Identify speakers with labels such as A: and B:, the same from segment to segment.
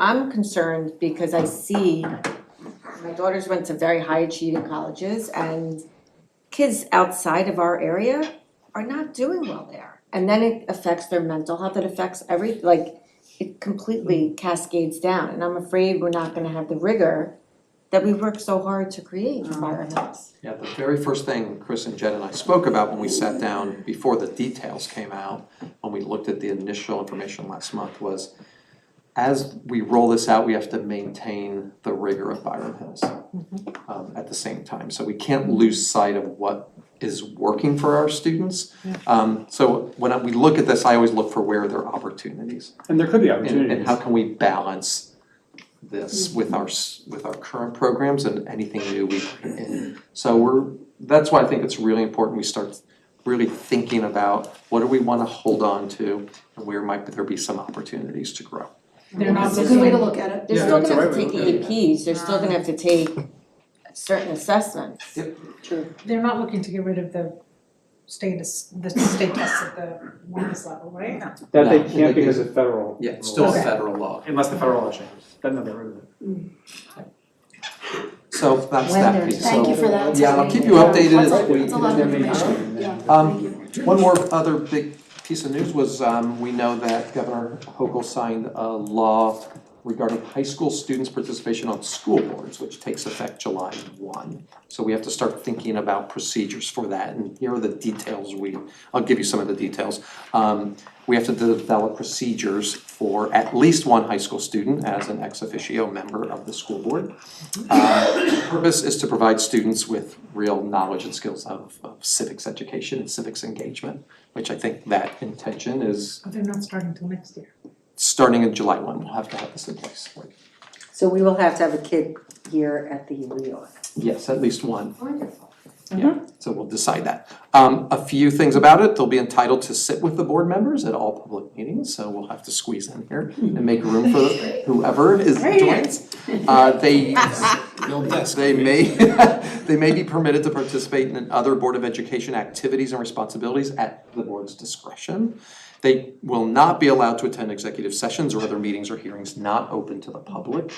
A: I'm concerned because I see my daughters went to very high achieving colleges and kids outside of our area are not doing well there. And then it affects their mental health, it affects every, like, it completely cascades down. And I'm afraid we're not gonna have the rigor that we worked so hard to create for our house.
B: Yeah, the very first thing Chris and Jed and I spoke about when we sat down, before the details came out, when we looked at the initial information last month was, as we roll this out, we have to maintain the rigor of Byram Hills um, at the same time. So we can't lose sight of what is working for our students. Um, so when I- we look at this, I always look for where there are opportunities.
C: And there could be
B: And and
C: opportunities.
B: how can we balance
D: Mm-hmm.
B: this with our s- with our current programs and anything new we bring in? So we're, that's why I think it's really important we start really thinking about what do we wanna hold on to and where might there be some opportunities to grow.
E: They're not
D: It's a good way to
E: doing,
D: look at it.
A: They're
C: Yeah,
A: still
C: that's
A: gonna
C: the
A: have to
C: right
A: take
C: way to look at
A: APs, they're still gonna have to take certain assessments.
B: Yep.
E: they're not looking to get rid of the state, as- the state tests at the wellness level, right?
C: That they
B: No,
C: can't
B: they-
C: because of federal.
B: Yeah, it's still
E: Okay.
B: federal law.
C: Unless the federal law changes, then they'll get rid of it.
B: So that's that piece. So-
D: Thank you for that.
B: Yeah, I'll keep you updated as
D: That's a-
B: we-
D: that's a lot of
C: There may be
D: information,
C: some-
D: yeah.
B: Um,
D: Thank you.
B: One more other big piece of news was, um, we know that Governor Hochul signed a law regarding high school students' participation on school boards, which takes effect July one. So we have to start thinking about procedures for that, and here are the details we, I'll give you some of the details. Um, we have to develop procedures for at least one high school student as an ex officio member of the school board. Uh, Purpose is to provide students with real knowledge and skills of of civics education and civics engagement, which I think that intention is
E: But they're not starting till next year.
B: starting in July one, we'll have to have this in place.
F: So we will have to have a kid here at the reorg.
B: Yes, at least one.
A: Wonderful.
B: Yeah, so we'll decide that. Um, a few things about it, they'll be entitled to sit with the board members at all public meetings, so we'll have to squeeze in here and make room for whoever is joins. Uh, they, they may, they may be permitted to participate in other Board of Education activities and responsibilities at the board's discretion. They will not be allowed to attend executive sessions or other meetings or hearings not open to the public.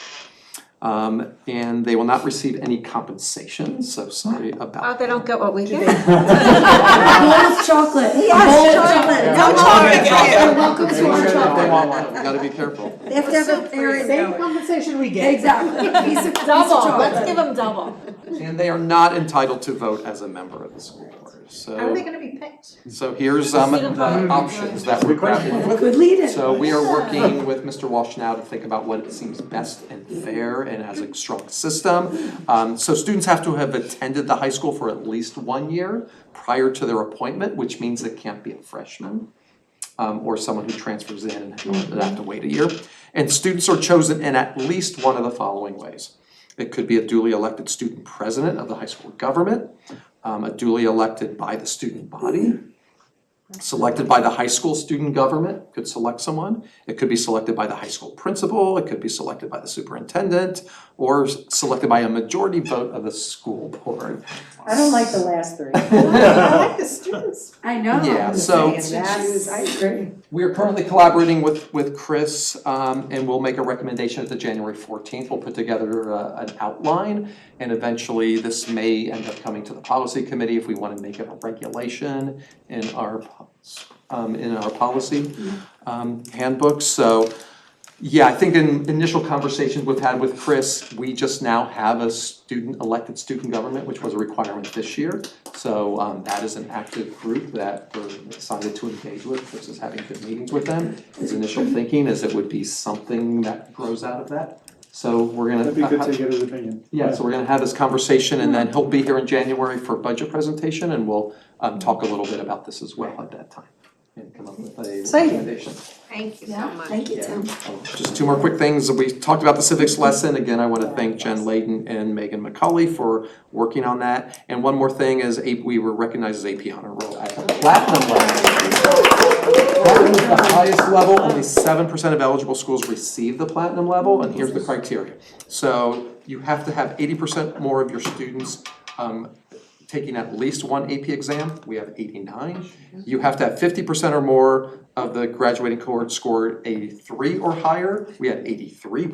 B: Um, and they will not receive any compensation, so sorry
A: Oh,
B: about
A: they don't get what we get.
D: A bowl of chocolate.
F: Yes, chocolate.
B: chocolate,
C: No
D: You're welcome
B: that.
D: to our
B: They
D: chocolate.
B: want one, you gotta be careful.
F: They have to have a parent
E: Same
F: going.
E: compensation we get.
F: Exactly, piece of, piece of
A: Double,
F: chocolate.
A: let's give them double.
B: And they are not entitled to vote as a member of the school board,
E: How are they
B: so,
E: gonna be picked?
B: so here's um
A: Sit
B: the
A: above.
B: options that we're grappling with.
F: Good leader.
B: So we are working with Mr. Walsh now to think about what seems best and fair and has a strong system. Um, so students have to have attended the high school for at least one year prior to their appointment, which means it can't be a freshman. um, or someone who transfers in and they have to wait a year. And students are chosen in at least one of the following ways. It could be a duly elected student president of the high school government, um, a duly elected by the student body, selected by the high school student government, could select someone. It could be selected by the high school principal, it could be selected by the superintendent, or s- selected by a majority vote of the school board.
F: I don't like the last three.
E: I like the students.
F: I know.
B: Yeah, so-
F: And that's- I agree.
B: We are currently collaborating with, with Chris, um, and we'll make a recommendation at the January fourteenth. We'll put together uh, an outline, and eventually this may end up coming to the policy committee if we want to make it a regulation in our, po- um, in our policy um, handbook. So, yeah, I think in initial conversations we've had with Chris, we just now have a student, elected student government, which was a requirement this year. So um, that is an active group that we're excited to engage with, Chris is having good meetings with them. His initial thinking is it would be something that grows out of that. So we're gonna.
C: That'd be good to get his opinion.
B: Yeah, so we're gonna have this conversation and then he'll be here in January for budget presentation and we'll um talk a little bit about this as well at that time. And come up with a
F: Exciting.
B: recommendation.
A: Thank you so
D: Yeah,
A: much.
D: thank you, Tim.
B: Just two more quick things, we talked about the civics lesson, again, I wanna thank Jen Layden and Megan McCauley for working on that. And one more thing is, A- we were recognized as AP Honor Roll at the platinum level. That was the highest level, only seven percent of eligible schools receive the platinum level, and here's the criteria. So you have to have eighty percent more of your students um, taking at least one AP exam, we have eighty-nine. You have to have fifty percent or more of the graduating cohort scored a three or higher, we had eighty-three